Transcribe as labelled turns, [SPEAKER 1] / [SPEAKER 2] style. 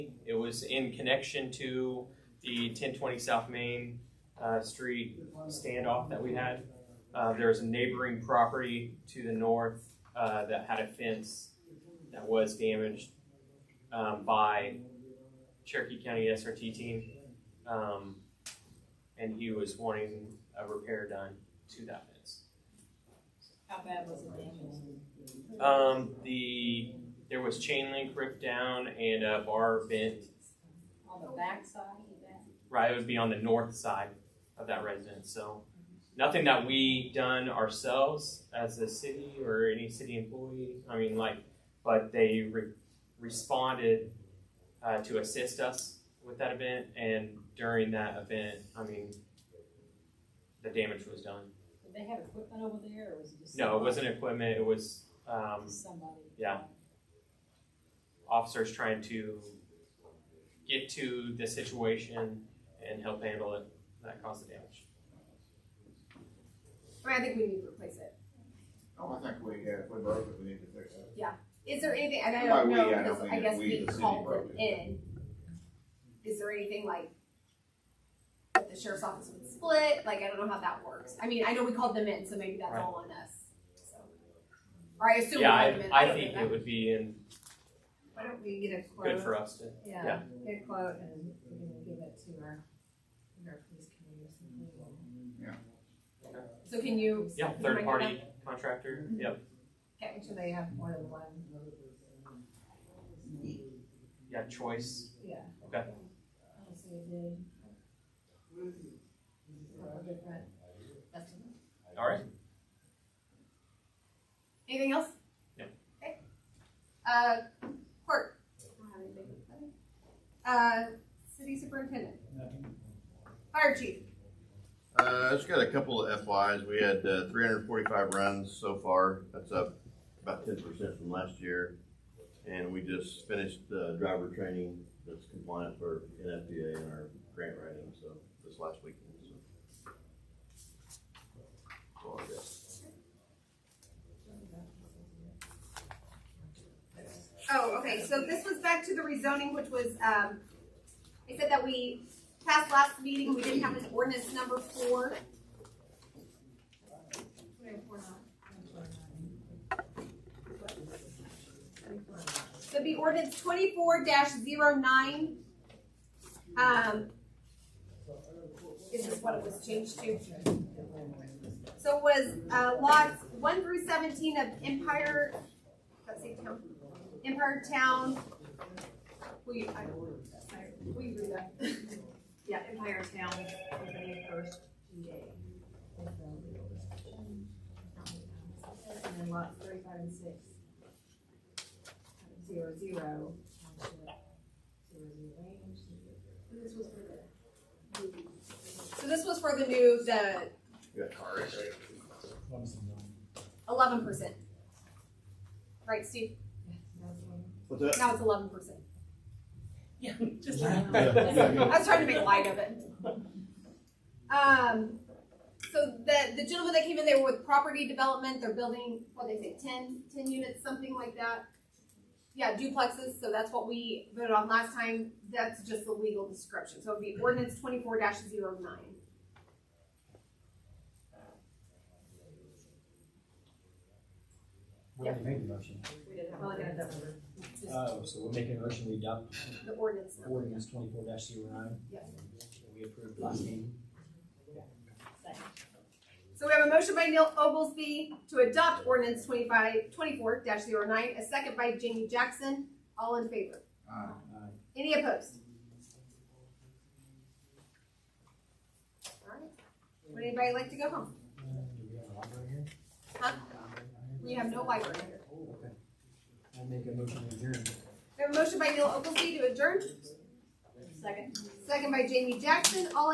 [SPEAKER 1] was in connection to the ten twenty South Main uh, Street standoff that we had. Uh, there was a neighboring property to the north uh, that had a fence that was damaged um, by Cherokee County SRT team, um, and he was wanting a repair done to that fence.
[SPEAKER 2] How bad was it damaged?
[SPEAKER 1] Um, the there was chain link ripped down and a bar bent.
[SPEAKER 2] On the backside of that?
[SPEAKER 1] Right, it would be on the north side of that residence. So nothing that we done ourselves as a city or any city employee. I mean, like, but they re- responded uh, to assist us with that event, and during that event, I mean, the damage was done.
[SPEAKER 2] Did they have equipment over there or was it just?
[SPEAKER 1] No, it
[SPEAKER 2] somebody-
[SPEAKER 1] wasn't equipment. It was um,
[SPEAKER 2] Somebody.
[SPEAKER 1] Yeah. officers trying to get to the situation and help handle it that caused the damage.
[SPEAKER 3] I mean, I think we need to replace it.
[SPEAKER 4] Oh, I think we, yeah, if we broke it, we need to fix it.
[SPEAKER 3] Is there anything, and I
[SPEAKER 4] By
[SPEAKER 3] don't
[SPEAKER 4] we,
[SPEAKER 3] know,
[SPEAKER 4] I don't
[SPEAKER 3] because
[SPEAKER 4] mean
[SPEAKER 3] I
[SPEAKER 4] that
[SPEAKER 3] guess
[SPEAKER 4] we,
[SPEAKER 3] we
[SPEAKER 4] the city
[SPEAKER 3] called
[SPEAKER 4] broke
[SPEAKER 3] it
[SPEAKER 4] it.
[SPEAKER 3] in. Is there anything like that the sheriff's office would split? Like, I don't know how that works. I mean, I know we called them in, so maybe that's
[SPEAKER 1] Right.
[SPEAKER 3] all on us. So, Or I assume we
[SPEAKER 1] Yeah,
[SPEAKER 3] called them
[SPEAKER 1] I,
[SPEAKER 3] in.
[SPEAKER 1] I
[SPEAKER 3] don't
[SPEAKER 1] think
[SPEAKER 3] know.
[SPEAKER 1] it would be in,
[SPEAKER 5] Why don't we get a
[SPEAKER 1] good
[SPEAKER 5] quote?
[SPEAKER 1] for us to,
[SPEAKER 5] Yeah,
[SPEAKER 1] yeah.
[SPEAKER 5] get a quote and we can give it to our, our police committee or something.
[SPEAKER 3] So can you?
[SPEAKER 1] yeah,
[SPEAKER 3] can you
[SPEAKER 1] third
[SPEAKER 3] bring it
[SPEAKER 1] party
[SPEAKER 3] up?
[SPEAKER 1] contractor, yep,
[SPEAKER 5] Make sure they have more than one,
[SPEAKER 1] yeah, choice.
[SPEAKER 5] yeah.
[SPEAKER 1] Okay.
[SPEAKER 5] So you did. Couple different estimates.
[SPEAKER 1] All right,
[SPEAKER 3] Anything else?
[SPEAKER 1] No.
[SPEAKER 3] Okay. Uh, court. I don't have anything. Uh, city superintendent. Fire chief.
[SPEAKER 6] Uh, I just got a couple of FYs. We had uh, 345 runs so far. That's up about 10% from last year. And we just finished the driver training that's compliant for NFPA and our grant writing, so this last weekend. So. That's all I got.
[SPEAKER 3] Oh, okay, so this was back to the rezoning, which was, um, I said that we passed last meeting, we didn't have an ordinance number four. We have four now. So it'd be ordinance twenty-four 9 Um, is this what it was changed to? So it was, uh, lots one through seventeen of Empire, let's see, town Empire Town. Will you, I, will you read that? Yeah, Empire Town, the first day.
[SPEAKER 5] And then lots thirty-five and six. Zero, zero. Zero, zero, range.
[SPEAKER 3] This was for the. So this was for the new, the
[SPEAKER 6] You got car wreck, right?
[SPEAKER 3] eleven percent. Right, Steve?
[SPEAKER 5] That's one.
[SPEAKER 6] What's that?
[SPEAKER 3] Now it's eleven percent.
[SPEAKER 2] Just.
[SPEAKER 3] I was trying to make light of it. Um, so the, the gentleman that came in, they were with property development, they're building, what they say, 10 10 units, something like that. Yeah, duplexes, so that's what we voted on last time, that's just the legal description, so it'd be ordinance twenty-four 9
[SPEAKER 7] We already made the motion.
[SPEAKER 3] We didn't have
[SPEAKER 5] Well, I got
[SPEAKER 3] ordinance,
[SPEAKER 5] that one.
[SPEAKER 3] just
[SPEAKER 7] Oh, so we're making a motion, we adopt
[SPEAKER 3] the ordinance number.
[SPEAKER 7] ordinance twenty-four dash zero nine.
[SPEAKER 3] Yep.
[SPEAKER 7] We approved last meeting.
[SPEAKER 3] So we have a motion by Neil Oglesby to adopt ordinance 25 24-09, a second by Jamie Jackson, all in favor?
[SPEAKER 4] Uh,
[SPEAKER 7] Aye.
[SPEAKER 3] Any opposed? Alright, would anybody like to go home?
[SPEAKER 7] Uh, Do we have a library here?
[SPEAKER 3] Huh? We have no library here.
[SPEAKER 7] Okay. I make a motion to adjourn.
[SPEAKER 3] We have a motion by Neil Oglesby to adjourn,
[SPEAKER 2] Second.
[SPEAKER 3] second by Jamie Jackson, all in